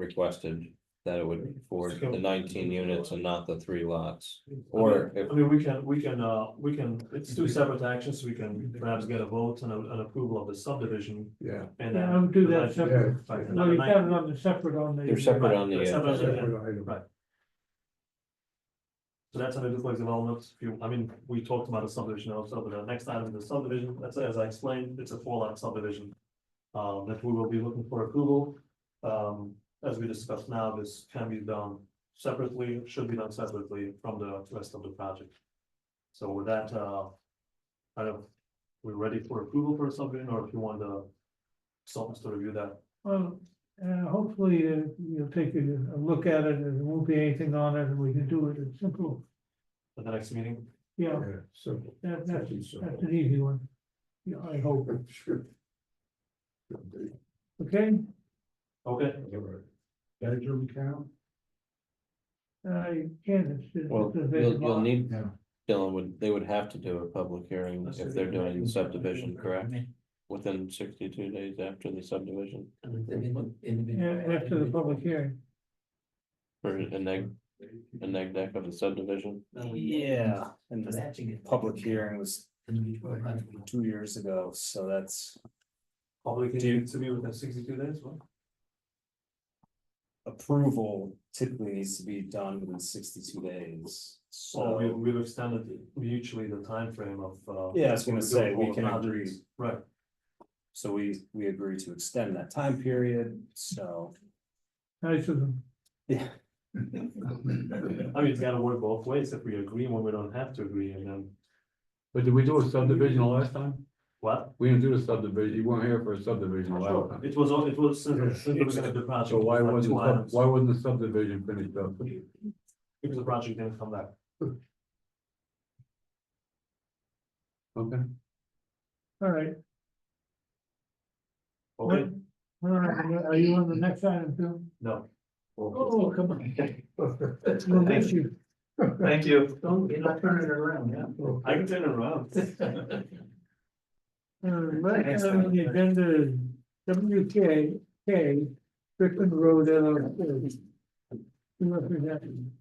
requested that it would be for the nineteen units and not the three lots. Or, Or if- I mean, we can, we can, uh, we can, it's Mm-hmm. two separate actions, so we can perhaps get a vote and a- an approval of the subdivision Yeah. and Yeah, then. I'll do that separate. Right, and No, then you've the got it on the separate on the. They're separate on the, Separate. uh, Separate item. Right. So that's under duplex development, if you, I mean, we talked about a subdivision also, but the next item is the subdivision, that's as I explained, it's a four lot subdivision. Um, that we will be looking for approval, um, as we discussed now, this can be done separately, should be done separately from the rest of the project. So with that, uh, I don't, we're ready for approval for a subdivision, or if you want the consultants to review that. Well, uh, hopefully uh, you'll take a, a look at it and there won't be anything on it and we can do it in simple. at the next meeting. Yeah, Yeah, simple. that, That'd that's, be simple. that's an easy one. Yeah, I hope. Sure. Okay, Okay, Manager account? I can, it's, it's well, a you'll, big you'll lot. need, Yeah. Dylan would, they would have to do a public hearing if they're doing the subdivision, correct? Within sixty-two days after the subdivision Yeah, after the public hearing. or a neg, a neg deck of the subdivision. Yeah, and the public hearing was Individual. two years ago, so that's public Do you- needs to be within sixty-two days, well. approval typically needs to be done within sixty-two days. Well, we, So, we've extended mutually the timeframe of, uh. Yeah, I was gonna say, we doing can all the agree. projects. Right, so we, we agree to extend that time period, so. Nice of them. Yeah. I mean, it's gotta work both ways, if we agree when we don't have to agree, and then, But did we do a subdivision the last time? what? We didn't do the subdivision, you weren't here for a subdivision the last time. It was, all- it was, since the- since the beginning of the project. So it why was like two wasn't, sub- items, why wasn't the subdivision finished up? Because the project didn't come back. Okay. All right. Okay, All right, Are you on the next item too? no. Oh, come on. We'll miss you. Thank you. Don't, you're not turning it around, I can turn it around. Uh, next item on the agenda is W K K, Strickland Road LLC. Who represents-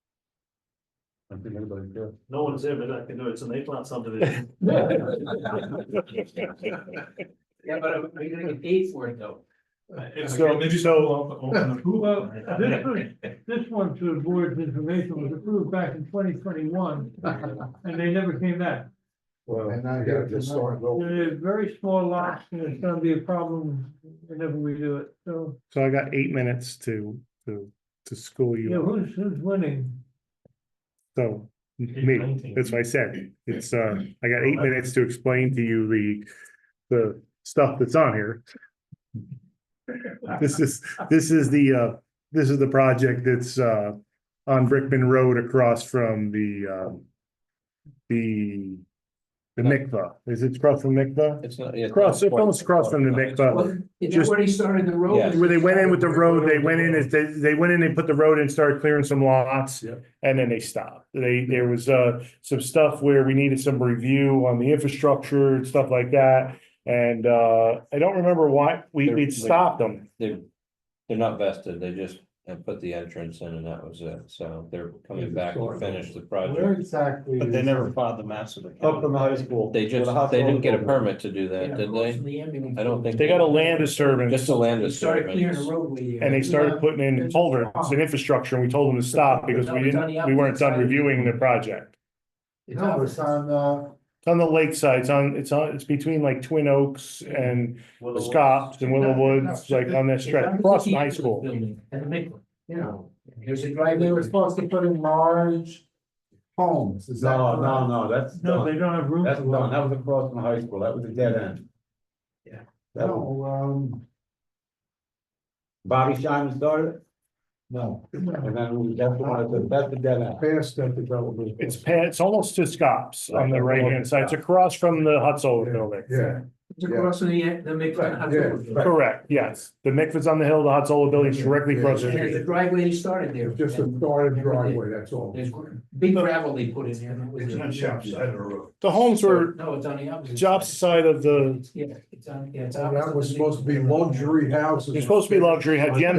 I think everybody's good. No one's here, but I can do it, it's an eight lot subdivision. Yeah, but are you gonna get paid for it though? Well, this was, this one to the board's information was approved back in twenty twenty-one, and they never came back. Well, and I got to start over. They're very small lots, and it's gonna be a problem whenever we do it, so, So I got eight minutes to, to, to school you know, you, who's, who's winning? so. Me, that's what I said, it's, uh, I got eight minutes to explain to you the, the stuff that's on here. This is, this is the, uh, this is the project that's, uh, on Brickman Road across from the, um. The, the mikvah, is it across from mikvah? It's not. it's not Cross- it's quite- almost across from the Mikvah. Is that Just- where he started the road? Yes. Where they went in with the road, they went in, as they, they went in, they put the road in, started clearing some lots. Yep. And then they stopped. They, there was, uh, some stuff where we needed some review on the infrastructure and stuff like that. And, uh, I don't remember why, we, They're- we stopped them. They're, they're not vested, they just have put the entrance in and that was it, so they're coming back to finish the project. exactly? But they never filed the maps with Oh, the Up county. from the high school. They just, they didn't get a permit to do that, did they? I don't think- They got a land Just disturbance a land Started clearing the disturbance. roadway. and they started putting in culverts and infrastructure and we told them to stop because we didn't, we weren't done reviewing the project. No, it's on, uh. It's on the lakeside, it's on, it's on, it's between like Twin Oaks and Well, Scotts and Willow Woods, like on that stretch, across from high school. Building and the big one, you know, there's a drive, they were supposed to put in large homes, is that? No, no, no, that's No, they done, don't have room. that's for done, one. that was across from high school, that was a dead end. Yeah. That one, No, um, Bobby Simon started, it, no. and then that's the one, that's the- that's the dead end. Past that development. It's pa- it's almost to Scops on the right hand side. It's across from the Hutzel building. Yeah. It's across from the, the McLaren. Correct, yes. The mikvah's on the hill, the Hutzel building is directly across the And there's street. a driveway they started there. Just a started driveway, that's all. There's big gravel they put in there. and that was it. side of the road. The homes were No, it's on the opposite. job side. side of the, Yeah, it's on, yeah. That was supposed to be luxury houses. they're supposed to be luxury, had Yen